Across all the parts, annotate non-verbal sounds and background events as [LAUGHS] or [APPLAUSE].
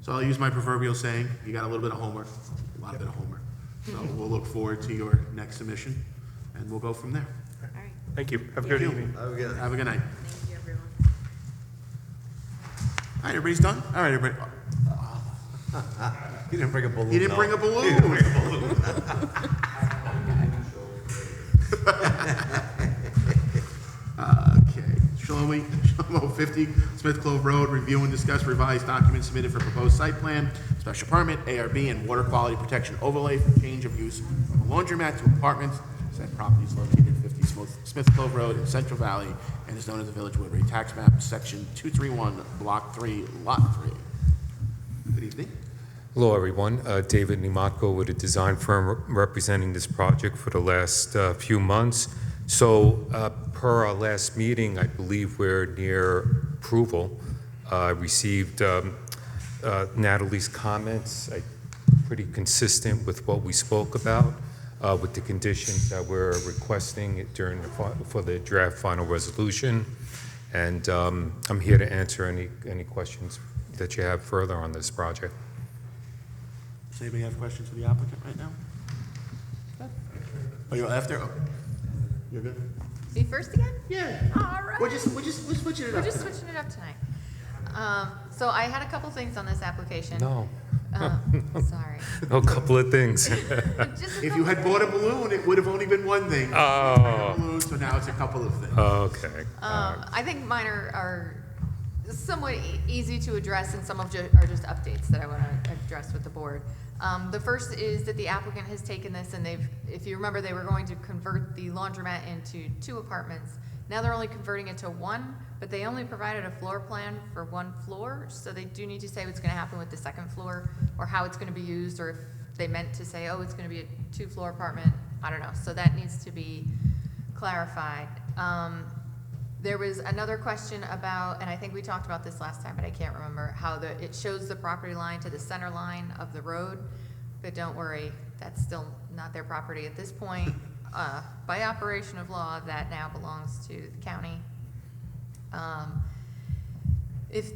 So I'll use my proverbial saying, you got a little bit of homework, a lot bit of homework. So we'll look forward to your next submission, and we'll go from there. All right, Thank you. Have a good Thank you. evening. Have a good night. Have a good night. thank you, everyone. All right, everybody's done? All right, everybody. [LAUGHS] He didn't bring a balloon. He didn't though. bring a balloon. Okay, [LAUGHS] Shlomo, Shlomo 50 Smith Clove Road, review and discuss revised documents submitted for proposed site plan, special permit, ARB, and water quality protection overlay for change of use from a laundromat to apartments. Said property is located at 50 Smith- Smith Clove Road in Central Valley and is known as the Village Woodbury Tax Map, Section 231, Block 3, Lot 3. Good evening. Hello, everyone. Uh, David Nimatko with a design firm representing this project for the last uh, few months. So uh, per our last meeting, I believe we're near approval. Uh, I received um, uh, Natalie's comments, I- pretty consistent with what we spoke about, uh, with the conditions that we're requesting during, the fi- for the draft final resolution. And um, I'm here to answer any, any questions that you have further on this project. Does anybody have questions for the applicant right now? Good. Oh, you're after? Oh, You're good? Be first again? Yeah. All right. We're just, we're just, we're switching it We're up. just switching it up tonight. Um, So I had a couple things on this application. No, [LAUGHS] Uh, Sorry. a couple of things. Just a If you couple- had bought a balloon, it would have only been one thing. Oh, Balloon, so now it's a couple of things. [LAUGHS] okay. Um, I think mine are, are somewhat e- easy to address, and some of ju- are just updates that I want to address with the board. Um, the first is that the applicant has taken this, and they've, if you remember, they were going to convert the laundromat into two apartments. Now they're only converting it to one, but they only provided a floor plan for one floor, so they do need to say what's going to happen with the second floor, or how it's going to be used, or if they meant to say, oh, it's going to be a two-floor apartment. I don't know. So that needs to be clarified. Um, there was another question about, and I think we talked about this last time, but I can't remember, how the, it shows the property line to the center line of the road. But don't worry, that's still not their property at this point. Uh, by operation of law, that now belongs to the county. Um, if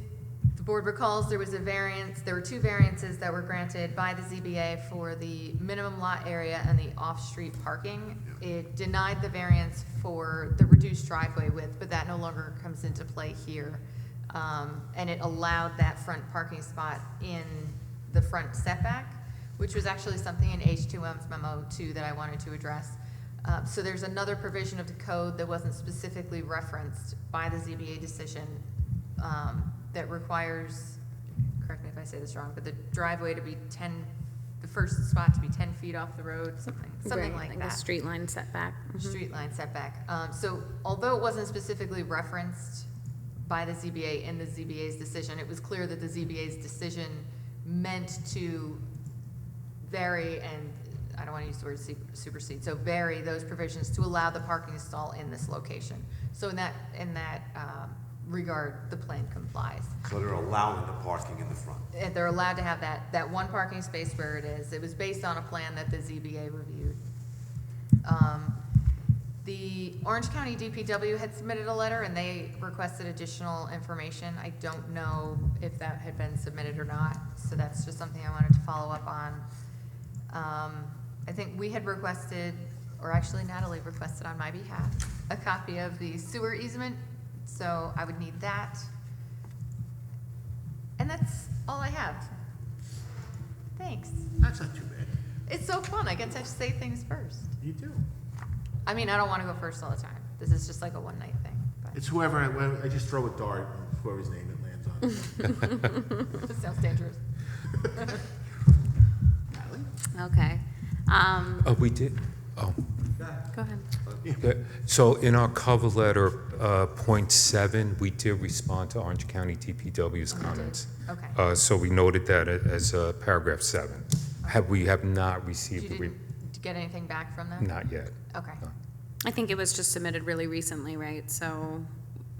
the board recalls, there was a variance, there were two variances that were granted by the ZBA for the minimum lot area and the off-street parking. It denied the variance for the reduced driveway width, but that no longer comes into play here. Um, And it allowed that front parking spot in the front setback, which was actually something in H2M's memo too that I wanted to address. Uh, So there's another provision of the code that wasn't specifically referenced by the ZBA decision um, that requires, correct me if I say this wrong, but the driveway to be 10, the first spot to be 10 feet off the road, something, something Right, like The that. Mm-hmm. street line setback. Mhm. Street line setback. Um, So although it wasn't specifically referenced by the ZBA in the ZBA's decision, it was clear that the ZBA's decision meant to vary and, I don't want to use the word su- supersede, so vary those provisions to allow the parking stall in this location. So in that, in that um, regard, the plan complies. So they're allowing the parking in the front. Uh, They're allowed to have that, that one parking space where it is. It was based on a plan that the ZBA reviewed. Um, The Orange County DPW had submitted a letter and they requested additional information. I don't know if that had been submitted or not, so that's just something I wanted to follow up on. Um, I think we had requested, or actually Natalie requested on my behalf, a copy of the sewer easement, so I would need that. And that's all I have. Thanks. That's not too bad. It's so fun. I get to say things first. You do. I mean, I don't want to go first all the time. This is just like a one night thing. It's whoever, I- well, I just throw a dart, whoever's name it lands [LAUGHS] on. [LAUGHS] But it sounds dangerous. Natalie? Mm-hmm. Okay. Um, Uh, We did, oh. Go ahead. yeah. So in our cover letter, uh, point seven, we did respond to Orange County DPW's comments. Okay. Uh, So we noted that a- as uh, paragraph seven. Have, we have not received You the, re- didn't get anything back from them? not yet. Okay. No. I think it was just submitted really recently, right? So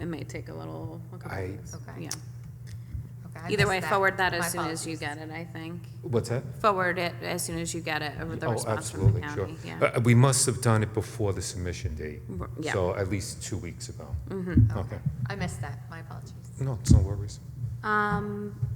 it may take a little, a couple I- weeks. Okay. Yeah. Okay, I Either way, missed forward that My as soon as you apologies. get it, I think. What's that? Forward it as soon as you get it, with the Oh, response from the absolutely, sure. county. Yeah. Uh, We must have done it before the submission date. R- yeah. So at least two weeks ago. Mhm. Okay. I missed that. My apologies. No, it's no worries. Um,